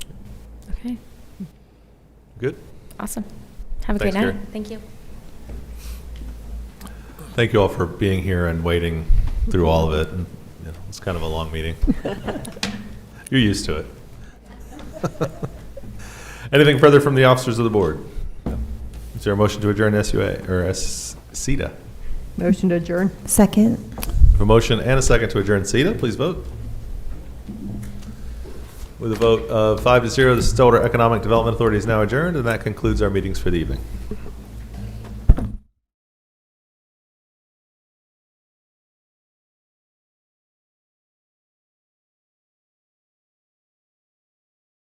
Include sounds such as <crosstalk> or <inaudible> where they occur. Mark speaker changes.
Speaker 1: Okay,
Speaker 2: Good.
Speaker 1: awesome. Have a great
Speaker 2: Thanks,
Speaker 1: night.
Speaker 2: Gary.
Speaker 1: Thank you.
Speaker 2: Thank you all for being here and waiting through all of it. And, you know, It's kind of a long meeting. You're used to it. <laughs> Anything further from the officers of the board? No. Is there a motion to adjourn SUA or SEDA?
Speaker 3: Motion to adjourn.
Speaker 4: Second.
Speaker 2: A motion and a second to adjourn SEDA, please vote. With a vote of five to zero, the Stillwater Economic Development Authority is now adjourned, and that concludes our meetings for the evening.